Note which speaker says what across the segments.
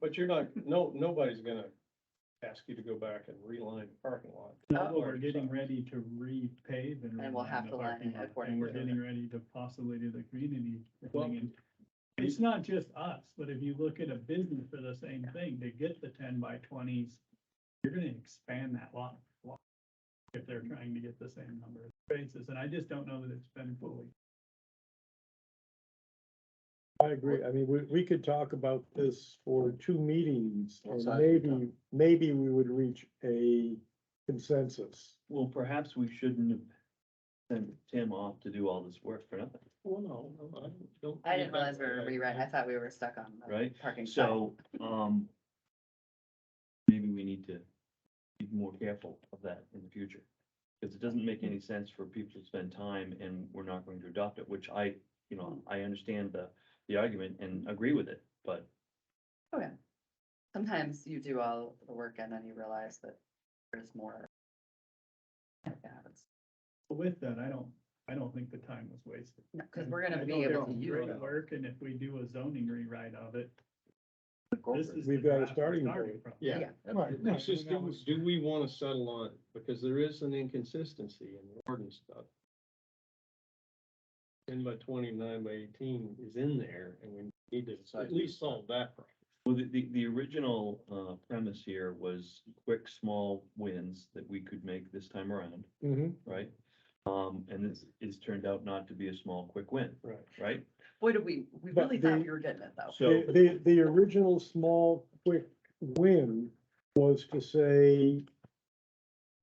Speaker 1: But you're not, no, nobody's gonna ask you to go back and reline the parking lot.
Speaker 2: No,
Speaker 1: Oh.
Speaker 2: we're getting ready to repave and.
Speaker 3: And we'll
Speaker 2: reline
Speaker 3: have
Speaker 2: the
Speaker 3: to line
Speaker 2: parking
Speaker 3: it
Speaker 2: lot,
Speaker 3: according
Speaker 2: And we're
Speaker 1: to-
Speaker 2: getting ready to possibly do the community.
Speaker 1: Well-
Speaker 2: thing. And It's not just us, but if you look at a business for the same thing, to get the ten by twenties, you're gonna expand that lot. lot If
Speaker 3: Mm-hmm.
Speaker 2: they're trying to get the same number of spaces, and I just don't know that it's been fully.
Speaker 4: I agree. I mean, we, we could talk about this for two meetings and
Speaker 5: Outside of the
Speaker 4: maybe, maybe we would reach a consensus.
Speaker 5: Well, perhaps we shouldn't have sent Tim off to do all this work for nothing,
Speaker 1: Well, no, no, I don't.
Speaker 3: I didn't realize we were rewriting. I thought we were stuck on. the
Speaker 5: right?
Speaker 3: Parking. side.
Speaker 5: So, um, maybe we need to be more careful of that in the future. Because it doesn't make any sense for people to spend time and we're not going to adopt it, which I, you know, I understand the, the argument and agree with it, but
Speaker 3: Sometimes you do all the work and then you realize that there's more. That happens.
Speaker 2: But With that, I don't, I don't think the time was wasted.
Speaker 3: No, because we're gonna
Speaker 2: I
Speaker 3: be
Speaker 2: know
Speaker 3: able to
Speaker 2: there's
Speaker 3: use.
Speaker 2: great Work, and if we do a zoning rewrite of it, this is. the
Speaker 4: We've got a
Speaker 2: draft we're
Speaker 4: starting
Speaker 2: from.
Speaker 1: Yeah.
Speaker 3: Yeah.
Speaker 4: Right.
Speaker 1: It's just, do, do we wanna settle on, it? because there is an inconsistency in the ordinance stuff. Ten by twenty, nine by eighteen is in there, and we need to at least solve that problem.
Speaker 5: Well, the, the, the original, uh, premise here was quick, small wins that we could make this time around,
Speaker 4: Mhm.
Speaker 5: right? Um, and this is turned out not to be a small, quick win,
Speaker 1: Right.
Speaker 5: right?
Speaker 3: Boy, did we, we
Speaker 4: But
Speaker 3: really thought
Speaker 4: the-
Speaker 3: we were getting it though.
Speaker 5: So,
Speaker 4: The, the, the original small, quick win was to say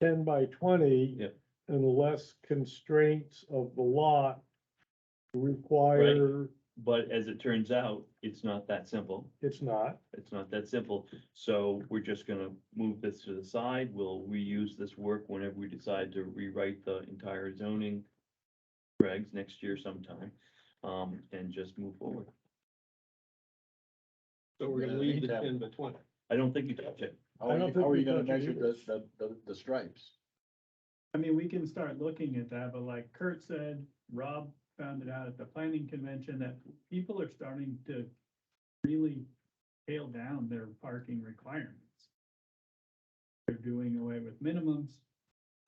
Speaker 4: ten by twenty.
Speaker 5: Yep.
Speaker 4: Unless constraints of the lot require,
Speaker 5: but as it turns out, it's not that simple.
Speaker 4: it's not.
Speaker 5: It's not that simple. So we're just gonna move this to the side. We'll reuse this work whenever we decide to rewrite the entire zoning regs next year sometime, um, and just move forward.
Speaker 1: So we're gonna
Speaker 6: Yeah,
Speaker 1: leave the
Speaker 6: anytime.
Speaker 1: ten by twenty.
Speaker 5: I don't think you touch it.
Speaker 6: How
Speaker 4: I
Speaker 6: are
Speaker 4: don't
Speaker 6: you,
Speaker 4: think
Speaker 6: how are
Speaker 4: we
Speaker 6: you gonna
Speaker 4: touch it
Speaker 6: measure
Speaker 4: either.
Speaker 6: the, the, the, the stripes?
Speaker 2: I mean, we can start looking at that, but like Kurt said, Rob found it out at the planning convention that people are starting to really tail down their parking requirements. They're doing away with minimums.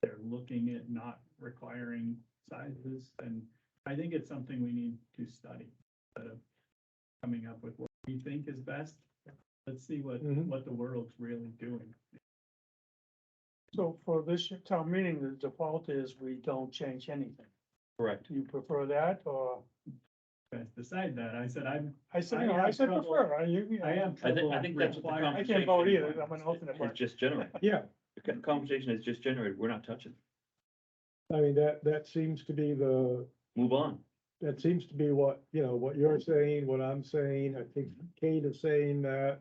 Speaker 2: They're looking at not requiring sizes, and I think it's something we need to study instead of coming up with what we think is best. Let's see what,
Speaker 4: Mhm.
Speaker 2: what the world's really doing.
Speaker 7: So for this year town meeting, the default is we don't change anything.
Speaker 5: Correct.
Speaker 7: Do you prefer that or?
Speaker 2: You Guys decide that. I said I'm
Speaker 7: I said,
Speaker 2: I
Speaker 7: no, I
Speaker 2: have
Speaker 7: said
Speaker 2: trouble-
Speaker 7: prefer. I, you, you know,
Speaker 2: I am.
Speaker 5: I think,
Speaker 2: trouble
Speaker 5: I think that's what the
Speaker 2: requiring-
Speaker 7: I
Speaker 5: conversation.
Speaker 7: can't vote either. I'm an alternate
Speaker 5: It's
Speaker 7: person.
Speaker 5: just generated.
Speaker 4: Yeah,
Speaker 5: The con- conversation is just generated. We're not touching.
Speaker 4: I mean, that, that seems to be the,
Speaker 5: Move on.
Speaker 4: that seems to be what, you know, what you're saying, what I'm saying, I think Kate is saying that.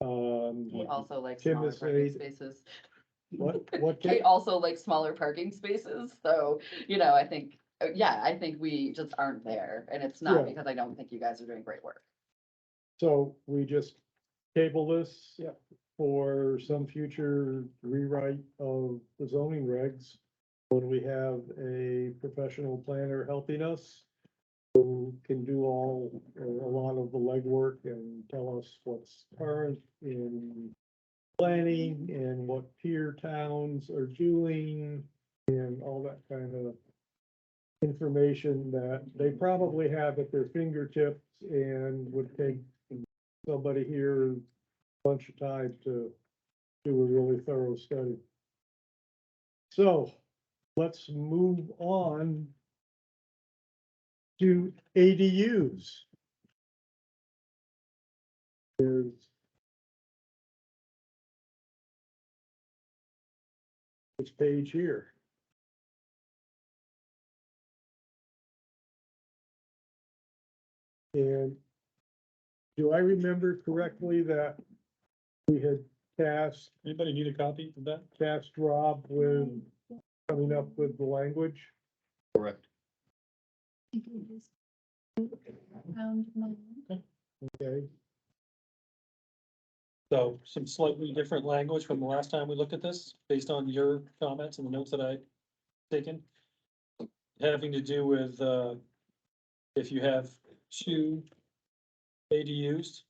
Speaker 3: He
Speaker 4: Um,
Speaker 3: also likes
Speaker 4: Tim
Speaker 3: smaller
Speaker 4: is
Speaker 3: parking
Speaker 4: saying-
Speaker 3: spaces.
Speaker 4: what, what,
Speaker 3: Kate
Speaker 4: Kate-
Speaker 3: also likes smaller parking spaces, so, you know, I think, uh, yeah, I think we just aren't there. And it's not
Speaker 4: Yeah.
Speaker 3: because I don't think you guys are doing great work.
Speaker 4: so we just table this. For some future rewrite of the zoning regs, when we have a professional planner helping us. Who can do all, or a lot of the legwork and tell us what's current in planning and what peer towns are doing and all that kind of information that they probably have at their fingertips and would take somebody here a bunch of time to do a really thorough study. So let's move on to ADUs. There's this page here. And do I remember correctly that we had tasked,
Speaker 1: Anybody need a copy of that?
Speaker 4: tasked Rob with coming up with the language?
Speaker 5: Correct.
Speaker 4: Okay,
Speaker 8: So some slightly different language from the last time we looked at this, based on your comments and the notes that I taken. Having to do with, uh, if you have two ADUs,